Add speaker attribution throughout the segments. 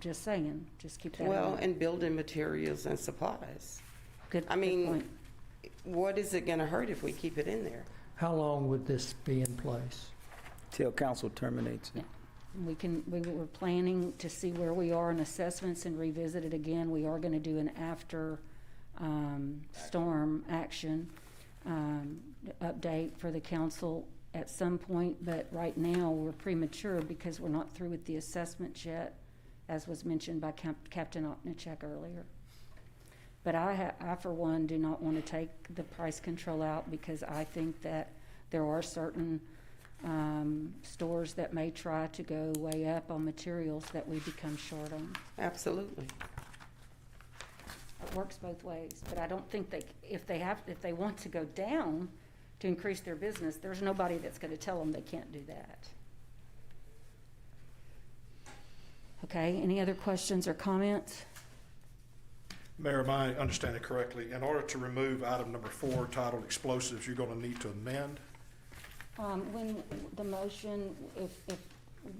Speaker 1: Just saying, just keep that in
Speaker 2: Well,
Speaker 1: mind.
Speaker 2: and building materials and supplies.
Speaker 1: Good-
Speaker 2: I
Speaker 1: good
Speaker 2: mean,
Speaker 1: point.
Speaker 2: what is it gonna hurt if we keep it in there?
Speaker 3: How long would this be in place?
Speaker 4: till council terminates it.
Speaker 1: We can, we were planning to see where we are in assessments and revisit it again. We are gonna do an after, um, storm action, um, update for the council at some point, but right now, we're premature because we're not through with the assessments yet, as was mentioned by Cap- Captain Opnichek earlier. But I ha, I for one do not wanna take the price control out because I think that there are certain, um, stores that may try to go way up on materials that we become short on.
Speaker 2: Absolutely.
Speaker 1: It works both ways, but I don't think they, if they have, if they want to go down to increase their business, there's nobody that's gonna tell them they can't do that. Okay, any other questions or comments?
Speaker 5: Mayor, am I understanding correctly? In order to remove item number four titled explosives, you're going to need to amend?
Speaker 1: Um, when the motion, if, if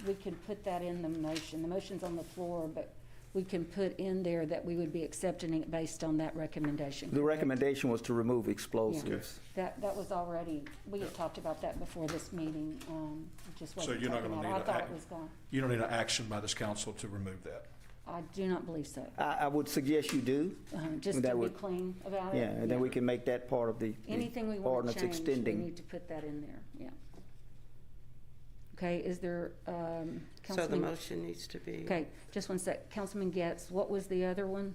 Speaker 1: we can put that in the motion, the motion's on the floor, but we can put in there that we would be accepting it based on that recommendation.
Speaker 4: The recommendation was to remove explosives.
Speaker 1: That, that was already, we had talked about that before this meeting, um, it just
Speaker 5: So
Speaker 1: wasn't
Speaker 5: you're not
Speaker 1: taken
Speaker 5: gonna
Speaker 1: out. I
Speaker 5: need a
Speaker 1: thought
Speaker 5: act-
Speaker 1: it was gone.
Speaker 5: You don't need an action by this council to remove that.
Speaker 1: I do not believe so,
Speaker 4: I, I would suggest you do,
Speaker 1: um, just
Speaker 4: That
Speaker 1: to be
Speaker 4: would-
Speaker 1: clean about it.
Speaker 4: yeah, and then we can make that part of the the
Speaker 1: Oh, Anything we want to
Speaker 4: ordinance
Speaker 1: change, we need
Speaker 4: extending.
Speaker 1: to put that in there, yeah. Okay, is there, um,
Speaker 2: So the
Speaker 1: Councilman?
Speaker 2: motion needs to be,
Speaker 1: Okay, just one sec, Councilman Getz, what was the other one?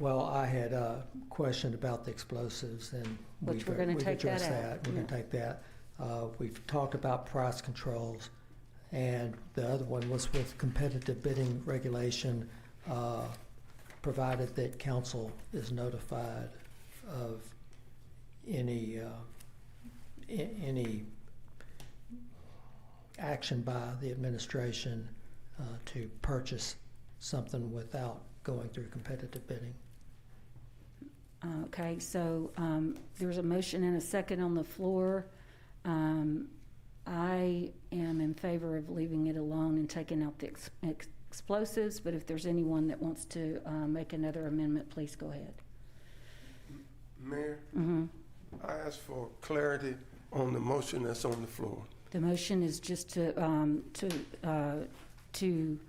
Speaker 3: Well, I had a question about the explosives and
Speaker 1: Which
Speaker 3: we've
Speaker 1: we're gonna
Speaker 3: we've
Speaker 1: take that
Speaker 3: addressed
Speaker 1: out,
Speaker 3: that. We're gonna
Speaker 1: yeah.
Speaker 3: take that. Uh, We've talked about price controls, and the other one was with competitive bidding regulation, uh, provided that council is notified of any, uh, a- any action by the administration uh, to purchase something without going through competitive bidding.
Speaker 1: Uh, Okay, so um, there's a motion and a second on the floor. Um, I am in favor of leaving it alone and taking out the ex- ex- explosives, but if there's anyone that wants to uh, make another amendment, please go ahead.
Speaker 6: Mayor,
Speaker 1: Mhm.
Speaker 6: I ask for clarity on the motion that's on the floor.
Speaker 1: The motion is just to, um, to, uh, to,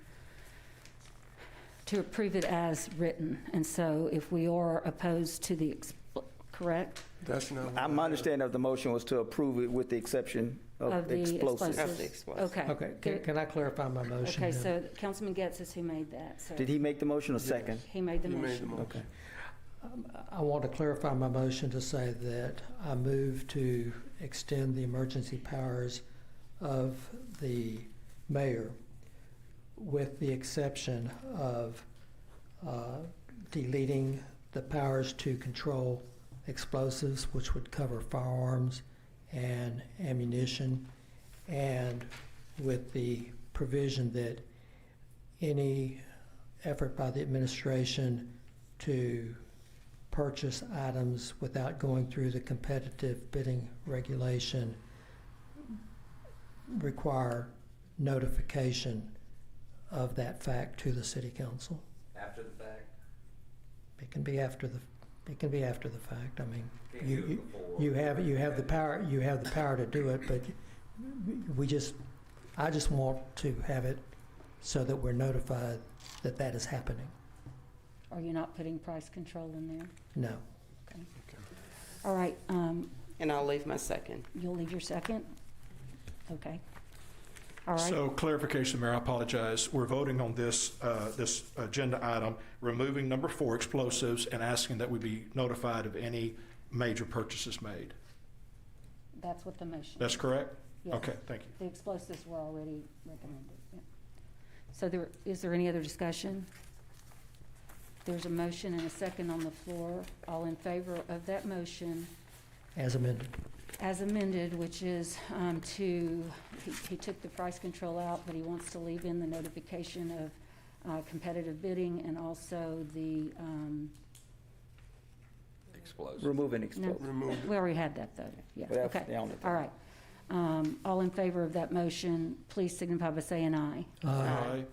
Speaker 1: to approve it as written. And so if we are opposed to the, expl- correct?
Speaker 6: That's not. what
Speaker 4: I'm
Speaker 6: I-
Speaker 4: understanding of the motion was to approve it with the exception
Speaker 1: Of
Speaker 4: of
Speaker 1: the
Speaker 4: Oh, explosives.
Speaker 2: Of the explosives.
Speaker 1: Okay.
Speaker 3: Okay, can, can I clarify my motion?
Speaker 1: Okay,
Speaker 3: then?
Speaker 1: so Councilman Getz is who made that, so
Speaker 4: Did he make the motion or second?
Speaker 1: he made the
Speaker 6: You made the
Speaker 1: motion.
Speaker 6: motion.
Speaker 3: I want to clarify my motion to say that I move to extend the emergency powers of the mayor with the exception of uh, deleting the powers to control explosives, which would cover firearms and ammunition, and with the provision that any effort by the administration to purchase items without going through the competitive bidding regulation require notification of that fact to the city council.
Speaker 7: After the fact?
Speaker 3: It can be after the, it can be after the fact, I mean,
Speaker 7: Can't
Speaker 3: you,
Speaker 7: do it
Speaker 3: you-
Speaker 7: before.
Speaker 3: you have, you have the power, you have the power to do it, but we just, I just want to have it so that we're notified that that is happening.
Speaker 1: Are you not putting price control in there?
Speaker 3: No.
Speaker 1: All right, um,
Speaker 2: and I'll leave my second.
Speaker 1: you'll leave your second? Okay. All right,
Speaker 5: So clarification, Mayor, I apologize. We're voting on this, uh, this agenda item, removing number four explosives and asking that we be notified of any major purchases made.
Speaker 1: that's what the motion.
Speaker 5: That's correct?
Speaker 1: Yes.
Speaker 5: Okay, thank you.
Speaker 1: The explosives were already recommended, yeah. So there, is there any other discussion? There's a motion and a second on the floor. All in favor of that motion
Speaker 3: As amended.
Speaker 1: as amended, which is um, to, he- he took the price control out, but he wants to leave in the notification of uh, competitive bidding and also the, um,
Speaker 7: Explosive.
Speaker 4: Removing explosives.
Speaker 6: Remove it.
Speaker 1: we already had that though, yeah,
Speaker 4: But that's
Speaker 1: okay.
Speaker 4: the only
Speaker 1: All
Speaker 4: thing.
Speaker 1: right. Um, All in favor of that motion, please signify by saying aye.
Speaker 3: Uh,
Speaker 5: Aye.